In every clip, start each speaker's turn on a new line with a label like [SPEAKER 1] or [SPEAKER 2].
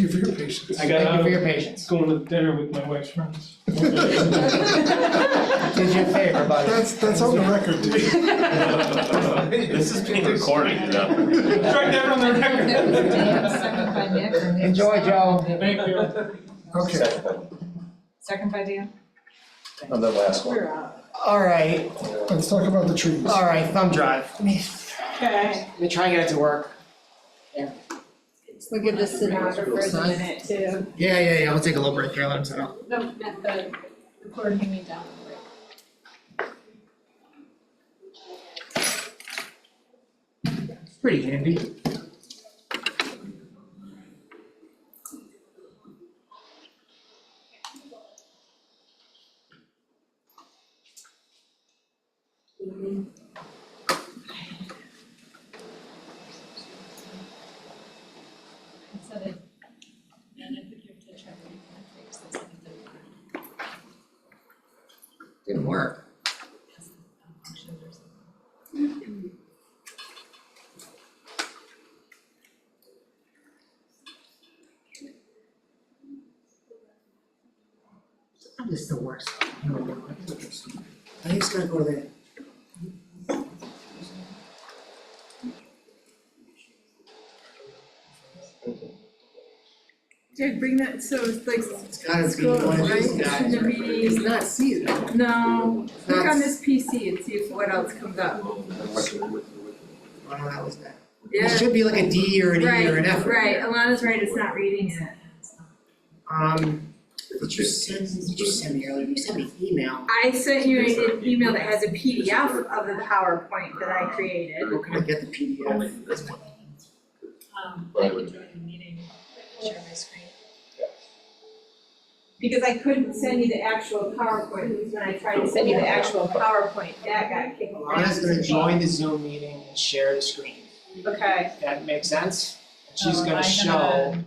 [SPEAKER 1] you for your patience.
[SPEAKER 2] I got
[SPEAKER 3] Thank you
[SPEAKER 2] out
[SPEAKER 3] for
[SPEAKER 2] of
[SPEAKER 3] your patience.
[SPEAKER 2] going to dinner with my wife's friends.
[SPEAKER 3] Did you a favor, buddy.
[SPEAKER 1] That's, that's on the record, dude.
[SPEAKER 4] This is being recorded, you
[SPEAKER 2] Strike
[SPEAKER 4] know.
[SPEAKER 2] that from the record.
[SPEAKER 5] Second by Nick or Nick?
[SPEAKER 3] Enjoy, Joe.
[SPEAKER 2] Thank you.
[SPEAKER 1] Okay,
[SPEAKER 5] Second by Dan?
[SPEAKER 4] On the last one.
[SPEAKER 5] We're out.
[SPEAKER 3] All right,
[SPEAKER 1] let's talk about the trees.
[SPEAKER 3] all right, thumb drive. Let me,
[SPEAKER 5] Okay.
[SPEAKER 3] let me try and get it to work.
[SPEAKER 6] We'll give the stenographer the minute to,
[SPEAKER 3] Yeah, yeah, yeah, we'll take a little break here, let him sit down.
[SPEAKER 6] no, not the recording, you mean down the break.
[SPEAKER 3] It's Pretty handy.
[SPEAKER 6] So that, and I think you have to try to make that fix this in the
[SPEAKER 3] Didn't work.
[SPEAKER 6] shoulders.
[SPEAKER 3] I'm just the worst. I just gotta go to the.
[SPEAKER 7] Jared, bring that, so it's like,
[SPEAKER 3] It's gotta be
[SPEAKER 7] Scroll,
[SPEAKER 3] one of these
[SPEAKER 7] right?
[SPEAKER 3] guys.
[SPEAKER 7] Shouldn't
[SPEAKER 3] right?
[SPEAKER 7] be-
[SPEAKER 3] It's not seasonal.
[SPEAKER 7] no,
[SPEAKER 3] It's
[SPEAKER 7] click
[SPEAKER 3] not
[SPEAKER 7] on this PC and see if what else comes up.
[SPEAKER 3] I don't know how it's that. It
[SPEAKER 7] Yeah,
[SPEAKER 3] should be like a D or an E or an
[SPEAKER 7] right,
[SPEAKER 3] F.
[SPEAKER 7] right, Alana's right, it's not reading it.
[SPEAKER 3] Um, did you send, did you send me earlier, you sent me an email.
[SPEAKER 7] I sent you an email that has a PDF of the PowerPoint that I created.
[SPEAKER 3] Where can I get the PDF?
[SPEAKER 6] Um, I can join the meeting, share my screen.
[SPEAKER 7] Because I couldn't send you the actual PowerPoint, because when I tried to send you the actual PowerPoint, that got kicked off.
[SPEAKER 3] Alana's gonna join the Zoom meeting and share the screen.
[SPEAKER 7] Okay,
[SPEAKER 3] That makes sense? And she's
[SPEAKER 6] Oh,
[SPEAKER 3] gonna
[SPEAKER 6] I
[SPEAKER 3] show
[SPEAKER 6] gotta-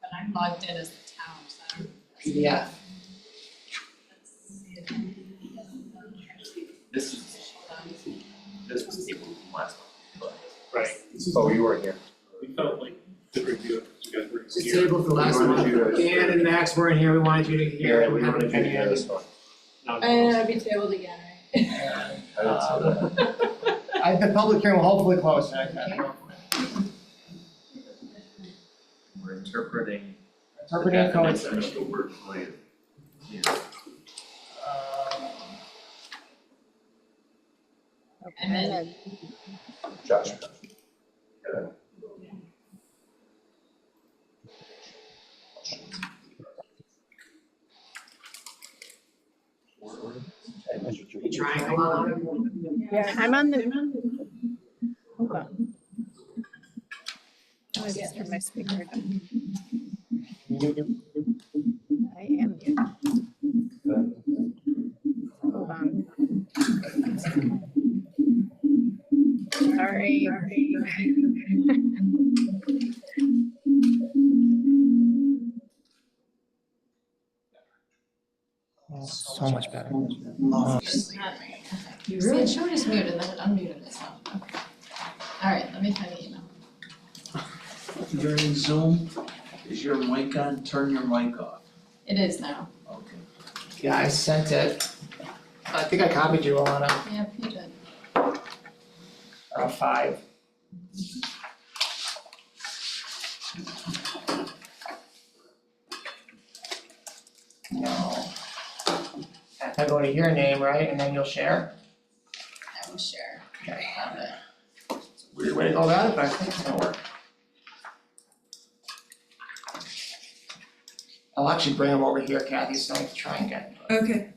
[SPEAKER 6] But I'm logged in as the town, so I don't.
[SPEAKER 3] PDF.
[SPEAKER 6] let's see if-
[SPEAKER 4] This is, this was taken from last one,
[SPEAKER 2] Right,
[SPEAKER 8] Oh, you weren't here.
[SPEAKER 2] we felt like the review, you guys were
[SPEAKER 3] It's
[SPEAKER 2] here.
[SPEAKER 3] tabled for last
[SPEAKER 8] We wanted
[SPEAKER 3] month.
[SPEAKER 8] you to-
[SPEAKER 3] Dan and Max weren't here, we wanted you to hear it,
[SPEAKER 8] We
[SPEAKER 3] we haven't
[SPEAKER 8] wanted you to
[SPEAKER 3] any
[SPEAKER 8] hear
[SPEAKER 3] idea.
[SPEAKER 8] this one.
[SPEAKER 2] Not-
[SPEAKER 6] And I'll be tabled again, right?
[SPEAKER 8] I didn't see that.
[SPEAKER 4] Uh,
[SPEAKER 3] I, the public hearing will hopefully close, I, I don't know.
[SPEAKER 4] We're interpreting the
[SPEAKER 3] Interpreting
[SPEAKER 4] definition
[SPEAKER 3] coincidence.
[SPEAKER 4] of the word plan. here.
[SPEAKER 3] Uh,
[SPEAKER 6] And then
[SPEAKER 8] Josh.
[SPEAKER 3] Triangle on
[SPEAKER 9] Yeah, I'm on the. Hold on. I'm gonna just turn my speaker down. I am here. Hold on. Sorry.
[SPEAKER 3] So much better.
[SPEAKER 6] You really? it showed as muted, then it unmuted itself, okay. All right, let me find the email.
[SPEAKER 4] You're in Zoom, is your mic on, turn your mic off,
[SPEAKER 6] It is now.
[SPEAKER 4] okay.
[SPEAKER 3] Yeah, I sent it. I think I copied you, Alana,
[SPEAKER 6] Yeah, you did.
[SPEAKER 3] around five. No. I go to your name, right, and then you'll share?
[SPEAKER 6] I will share.
[SPEAKER 3] Okay.
[SPEAKER 6] Found it.
[SPEAKER 4] It's a Weird
[SPEAKER 3] Way
[SPEAKER 4] way to
[SPEAKER 3] to go about it, but I think it's gonna work. I'll actually bring them over here, Kathy, so I can try and get,
[SPEAKER 7] okay,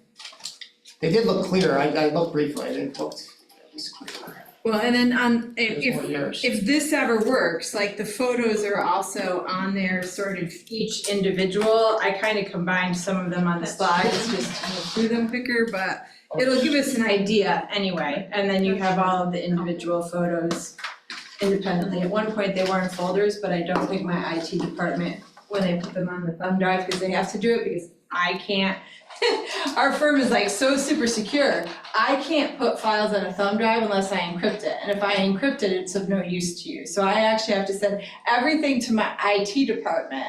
[SPEAKER 3] they did look clear, I, I looked briefly, they looked at least clear.
[SPEAKER 7] well, and then on,
[SPEAKER 3] There's
[SPEAKER 7] if,
[SPEAKER 3] more years.
[SPEAKER 7] if this ever works, like the photos are also on there, sort of each individual. I kind of combined some of them on the slides just to move through them quicker, but it'll give us an idea anyway. And then you have all of the individual photos independently. At one point, they were in folders, but I don't think my IT department, when they put them on the thumb drive, because they have to do it because I can't. Our firm is like so super secure. I can't put files on a thumb drive unless I encrypt it, and if I encrypt it, it's of no use to you. So I actually have to send everything to my IT department